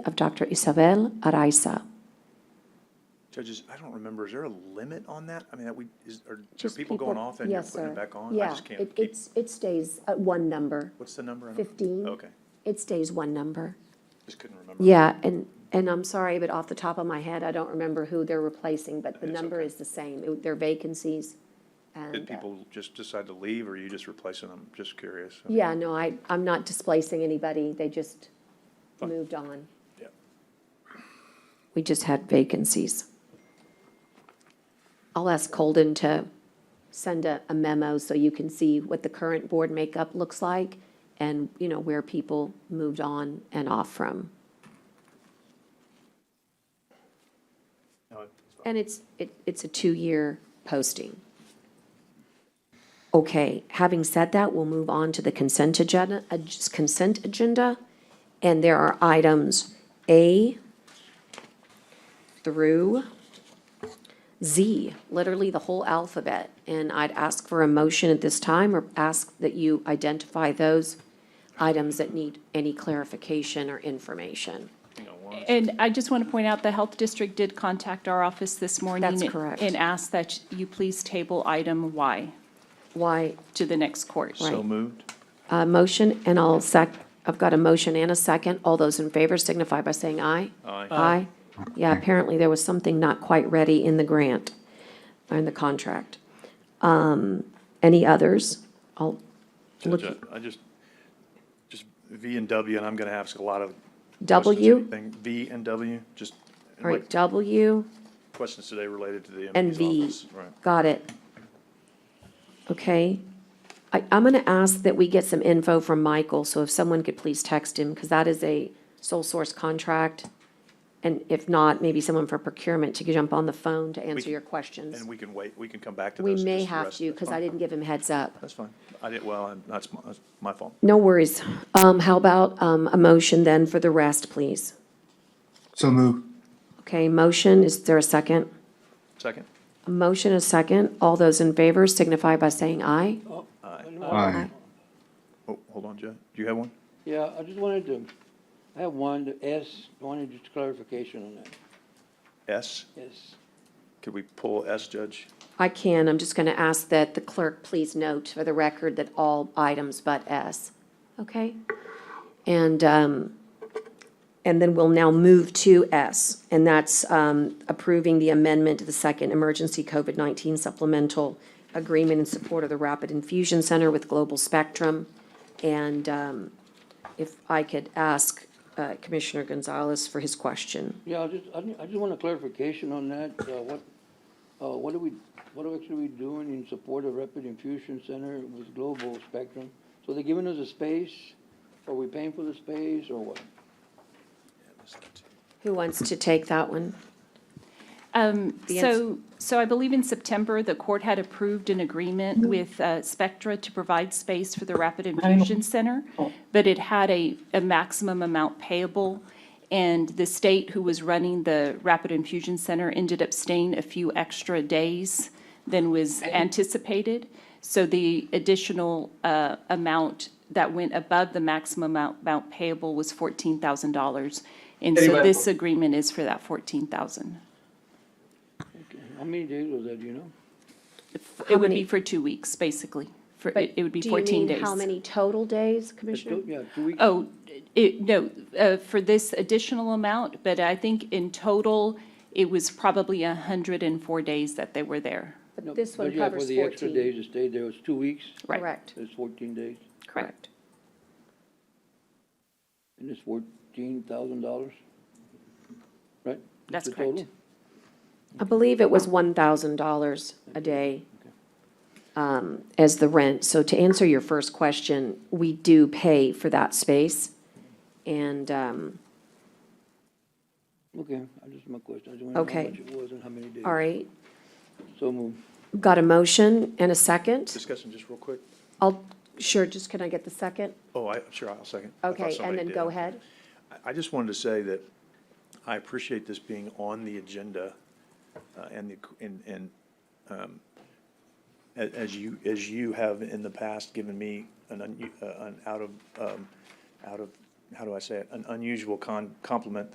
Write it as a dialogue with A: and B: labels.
A: of Dr. Isabel Araiza.
B: Judges, I don't remember, is there a limit on that? I mean, that we, is, are there
A: Just
B: people going off and you're
A: yes,
B: putting
A: sir.
B: it back on? I
A: Yeah,
B: just can't
A: it-
B: keep-
A: it's- It stays at one number,
B: What's the number? I don't-
A: 15.
B: Okay,
A: It stays one number.
B: just couldn't remember.
A: Yeah, and, and I'm sorry, but off the top of my head, I don't remember who they're replacing, but the
B: It's
A: number
B: okay.
A: is the same. It- They're vacancies.
B: Did
A: and, uh,
B: people just decide to leave or are you just replacing them? Just curious. I
A: uh,
B: mean,
A: Yeah, no, I, I'm not displacing anybody. They just moved on.
B: yeah.
A: We just had vacancies. I'll ask Colden to send a, a memo so you can see what the current board makeup looks like and, you know, where people moved on and off from.
B: No, it's fine.
A: And it's, it, it's a two-year posting. Okay, having said that, we'll move on to the consent agenda, ag- consent agenda. And there are items A through Z, literally the whole alphabet. And I'd ask for a motion at this time or ask that you identify those items that need any clarification or information.
B: Hang on one
C: And I just want to point out, the Health District did contact our office this morning.
A: That's correct.
C: And asked that you please table item Y
A: Why,
C: to the next court.
B: So
A: right.
B: moved.
A: A motion, and I'll sec, I've got a motion and a second. All those in favor signify by saying aye.
B: Aye.
A: Aye. Yeah, apparently there was something not quite ready in the grant, or in the contract. Um, Any others? I'll look,
B: Judge, I I just, just V and W, and I'm going to ask a lot of. questions,
A: W?
B: anything. V and W, just.
A: all right,
B: like,
A: W
B: Questions today related to the
A: and
B: MD's
A: V.
B: office. Right.
A: Got it. Okay. I, I'm going to ask that we get some info from Michael, so if someone could please text him, because that is a sole source contract. And if not, maybe someone from procurement to jump on the phone to answer
B: can-
A: your questions.
B: And we can wait, we can come back to
A: We
B: those.
A: may
B: just the
A: have
B: rest-
A: to, because I didn't give him heads up.
B: That's fine. I did, well, I'm- that's my, that's my fault.
A: No worries. Um, how about, um, a motion then for the rest, please?
D: So moved.
A: Okay, motion, is there a second?
B: Second?
A: A motion, a second. All those in favor signify by saying aye.
D: Aye.
B: Oh, hold on, Joe. Do you have one?
E: Yeah, I just wanted to, I have one, to ask. I wanted just clarification on that,
B: S?
E: yes.
B: Could we pull S, Judge?
A: I can, I'm just going to ask that the clerk please note for the record that all items but S, okay? And, um, and then we'll now move to S, and that's um, approving the amendment to the second emergency COVID-19 supplemental agreement in support of the Rapid Infusion Center with Global Spectrum. And um, if I could ask uh, Commissioner Gonzalez for his question.
E: Yeah, I just, I ju- I just want a clarification on that, uh, what, uh, what are we, what are actually we doing in support of Rapid Infusion Center with Global Spectrum? So they're giving us a space, are we paying for the space, or what?
A: Who wants to take that one?
C: Um,
A: The
C: So, so I believe in September, the court had approved an agreement with uh, Spectra to provide space for the Rapid Infusion Center, but it had a, a maximum amount payable, and the state who was running the Rapid Infusion Center ended up staying a few extra days than was anticipated. So the additional uh, amount that went above the maximum amount- amount payable was $14,000. And so
D: Anyway.
C: this agreement is for that 14,000.
E: Okay, How many days was that, do you know?
C: It would
A: many-
C: be for two weeks, basically. For, it it would be
A: Do you
C: 14
A: mean
C: days.
A: How many total days, Commissioner?
E: Two- Yeah, two weeks,
C: Oh, it, no, uh, for this additional amount, but I think in total, it was probably 104 days that they were there.
A: But
E: No,
A: this one
E: but yeah,
A: covers
E: For the extra
A: 14.
E: days that stayed there, it was two weeks,
C: Right.
A: Correct,
E: it's fourteen days,
A: correct.
E: and it's fourteen thousand dollars, right?
C: That's
E: the
C: correct.
E: total?
A: I believe it was $1,000 a day um, as the rent. So to answer your first question, we do pay for that space. And um,
E: Okay, I just, my question, I just want to know
A: Okay.
E: how much it was and how many days.
A: all right,
E: So moved.
A: got a motion and a second?
B: Discussion just real quick.
A: I'll, sure, just can I get the second?
B: Oh, I, sure, I'll second. I thought
A: Okay, and
B: somebody
A: then
B: did.
A: go ahead.
B: I- I just wanted to say that I appreciate this being on the agenda uh, and the, and, and um, a- as you, as you have in the past given me an, un- uh, an out of, um, out of how do I say it, an unusual con, compliment